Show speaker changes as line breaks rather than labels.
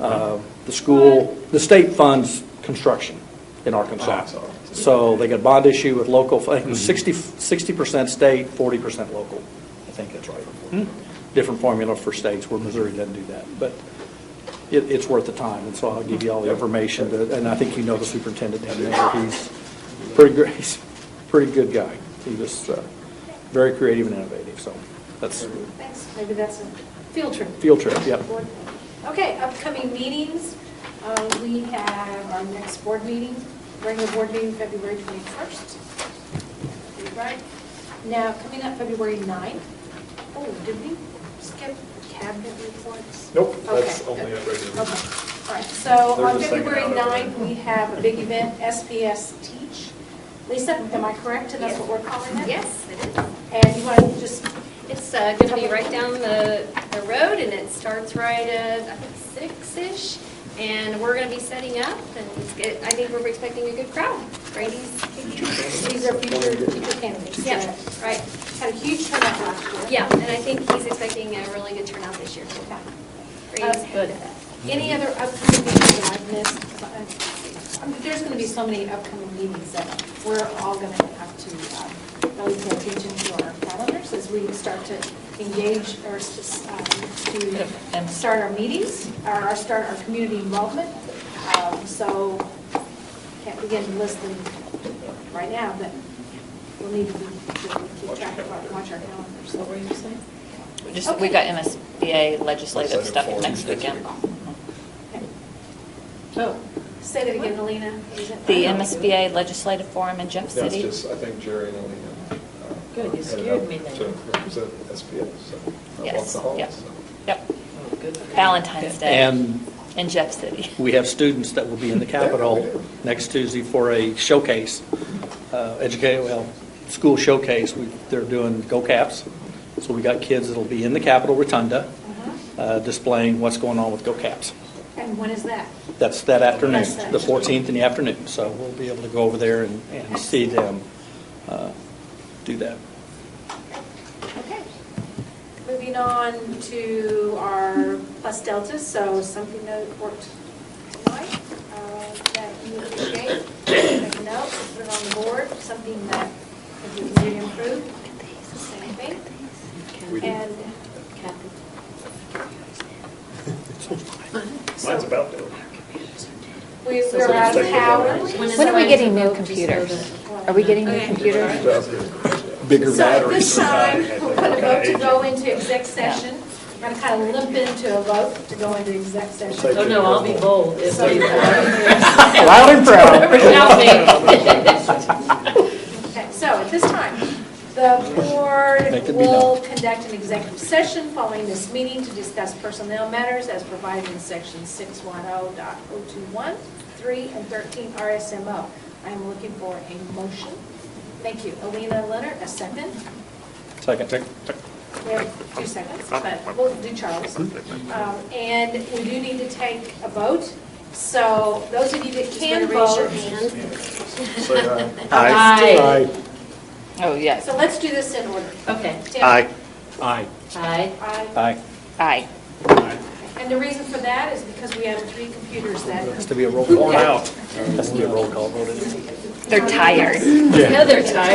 Uh, the school, the state funds construction in
Ah,
Arkansas.
so-
So they got a bond issue with local, I think it
Hmm.
was 60, 60% state, 40% local. I think that's right.
Hmm.
Different formula for states where Missouri doesn't do that. But it, it's worth the time, and so I'll give you all the information. to- And I think you know the superintendent down there. He's pretty great, he's a pretty good guy. He was uh, very creative and innovative, so that's
Thanks, maybe that's a field trip.
field trip, yep.
Board- Okay, upcoming meetings, Uh, we have our next board meeting, regular board meeting, February 21st. Right, now, coming up February 9th, oh, did we skip cabinet reports?
Nope, that's
Okay,
only at
Okay,
regular.
all right, so on
There's a second
February
out of it.
9th, we have a big event, SPS Teach. Lisa, am I correct, and that's what we're calling it?
Yes, it is.
And you want to just
It's going to be right down the, the road, and it starts right at, I think, six-ish, and we're going to be setting up, and it's good, I think we're expecting a good crowd. Brady's
These are future teacher candidates.
Yeah,
that
right,
Had a huge turnout last year.
yeah, and I think he's expecting a really good turnout this year. Brady's good at that.
Any other upcoming meetings that I've missed? I mean, There's going to be so many upcoming meetings that we're all going to have to um, really pay attention to our calendars as we start to engage or s- um, to start our meetings, or our- start our community involvement. Um, So can't begin to list them right now, but we'll need to be- to keep track of our, watch our calendars. So what are you saying?
We Just, we got MSBA legislative stuff next weekend.
Oh. Say that again, Alina. Is it-
The MSBA legislative forum in Jeff
That's
City.
just, I think Jerry and Alina. uh,
Good, you
headed
scared
up
me then.
To represent SPS, so. I walked
Yes,
the halls,
yep,
so.
yep. Valentine's Day
And
in Jeff City.
We have students that will be in the Capitol next Tuesday for a showcase, uh, educate, well, school showcase. We- They're doing Go Caps. So we got kids that'll be in the Capitol Rotunda
Mm-hmm.
uh, displaying what's going on with Go Caps.
And when is that?
That's that afternoon,
That's that.
the 14th in the afternoon. So we'll be able to go over there and and see them uh, do that.
Okay. Moving on to our plus deltas, so something that worked tonight uh, that you appreciate, make a note, put it on the board, something that we can improve, same
We
thing.
do.
And
Mine's about due.
we- we're out of powers.
When are we getting new computers? Are we getting new computers?
About due.
Bigger
So at
batteries.
this time, we're going to vote to go into exec session. We're going to kind of limp into a vote to go into exec session.
Oh, no, I'll be bold. It's
So-
Loud and proud.
Okay, So at this time, the
Make
board
it be
will conduct an executive session following this meeting to discuss personnel matters as provided in section 610.021, 3, and 13 RSMO. I am looking for a motion. Thank you. Alina Leonard, a second.
Second.
We have two seconds, but we'll do Charles. Um, And we do need to take a vote. So those of you that can vote,
Say aye.
Aye.
Oh, yes.
so let's do this in order.
Okay.
Tim?
Aye. Aye.
Aye.
Aye.
Aye.
Aye.
And the reason for that is because we have three computers that,
Has to be a roll call. Has to be a roll call voted.
They're tired.
Yeah, they're tired.